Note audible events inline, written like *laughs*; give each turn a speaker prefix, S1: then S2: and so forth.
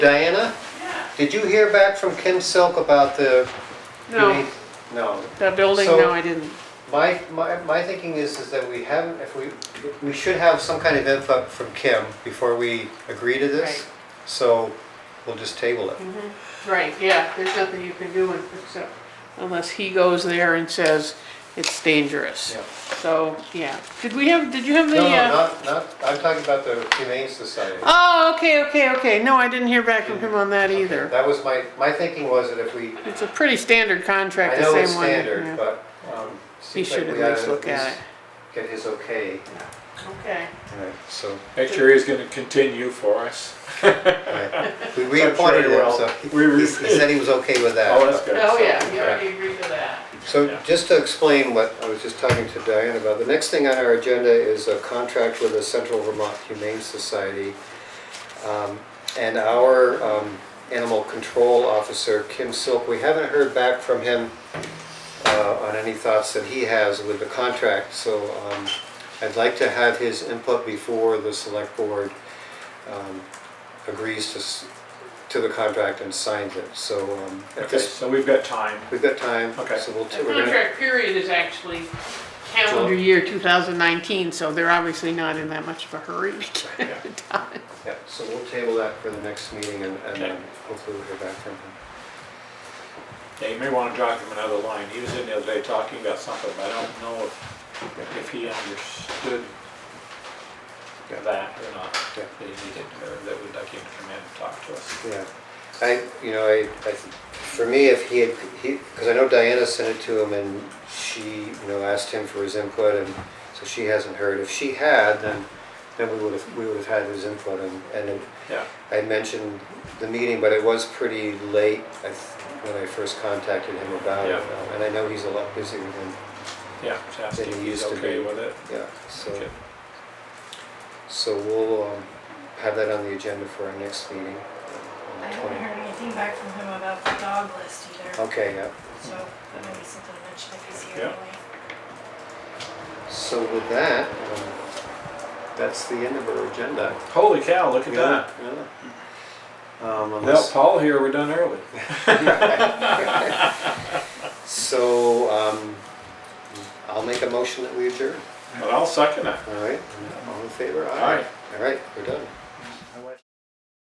S1: Diana, did you hear back from Kim Silk about the?
S2: No,
S1: No.
S2: the building,
S1: So-
S2: no, I didn't.
S1: My, my, my thinking is, is that we haven't, if we, we should have some kind of info from Kim before we agree to this.
S2: Right. Mm-hmm.
S1: So we'll just table it.
S2: Right, yeah, there's nothing you can do except, unless he goes there and says it's dangerous.
S1: Yeah.
S2: So, yeah. Did we have, did you have the?
S1: No, no,
S2: uh,
S1: not, not, I'm talking about the Humane Society.
S2: Oh, okay, okay, okay. No, I didn't hear back from him on that either.
S1: That was my, my thinking was that if we,
S2: It's a pretty standard
S1: I
S2: contract, the
S1: know
S2: same
S1: it's
S2: one.
S1: standard,
S2: yeah.
S1: but, um,
S2: He
S1: seems like
S2: should
S1: we
S2: at
S1: ought
S2: least
S1: to
S2: look
S1: at
S2: at
S1: least get his okay.
S2: it. Okay.
S1: Right, So,
S3: That jury is gonna continue for us.
S1: right. we
S3: he
S1: reappointed him,
S3: will.
S1: so
S3: We
S1: he-
S3: re-
S1: he said he was okay with that.
S3: *laughs* Oh, that's good.
S2: Oh,
S3: So-
S2: yeah, you already agreed to that.
S1: So
S3: Yeah.
S1: just to explain what I was just talking to Diane about, the next thing on our agenda is a contract with the Central Vermont Humane Society. Um, And our um, animal control officer, Kim Silk, we haven't heard back from him uh, on any thoughts that he has with the contract. So um, I'd like to have his input before the select board um, agrees to, s- to the contract and signs it. So um, at
S3: Okay,
S1: this,
S3: so we've got time.
S1: we've got time.
S3: Okay.
S1: So we'll,
S2: The
S1: we're gonna-
S2: contract period is actually calendar year 2019, so they're obviously not in that much of a hurry *laughs* to get
S3: Yeah.
S2: it done.
S1: Yeah, so we'll table that for the next meeting and, and
S3: Okay.
S1: um, hopefully we'll hear back from him.
S3: Yeah, you may wanna drop him another line. He was in the other day talking about something, but I don't know if, if he understood
S1: Yeah.
S3: that or not.
S1: Yeah.
S3: That he needed, or that we'd like him to come in and talk to us.
S1: Yeah, I, you know, I, I, for me, if he had, he, because I know Diana sent it to him and she, you know, asked him for his input and so she hasn't heard. If she had, then, then we would have, we would have had his input and, and it-
S3: Yeah,
S1: I mentioned the meeting, but it was pretty late I th- when I first contacted him about it.
S3: Yeah.
S1: Um, And I know he's a lot busier than,
S3: yeah, just
S1: Then
S3: asking if
S1: he
S3: he's
S1: used to
S3: okay
S1: be-
S3: with it.
S1: yeah, so.
S3: Okay.
S1: So we'll um, have that on the agenda for our next meeting.
S4: I
S1: on the
S4: haven't
S1: 20.
S4: heard anything back from him about the dog list either,
S1: Okay, yeah.
S4: so that might be something to mention if he's
S3: Yeah.
S4: here anyway.
S1: So with that, um, that's the end of our agenda.
S3: Holy cow, look at that.
S1: Yeah. Um,
S3: Without
S1: unless-
S3: Paul here, we're done early.
S1: So um, I'll make a motion that we adjourn.
S3: But I'll second it.
S1: All right, all in favor?
S3: Aye.
S1: All right, we're done.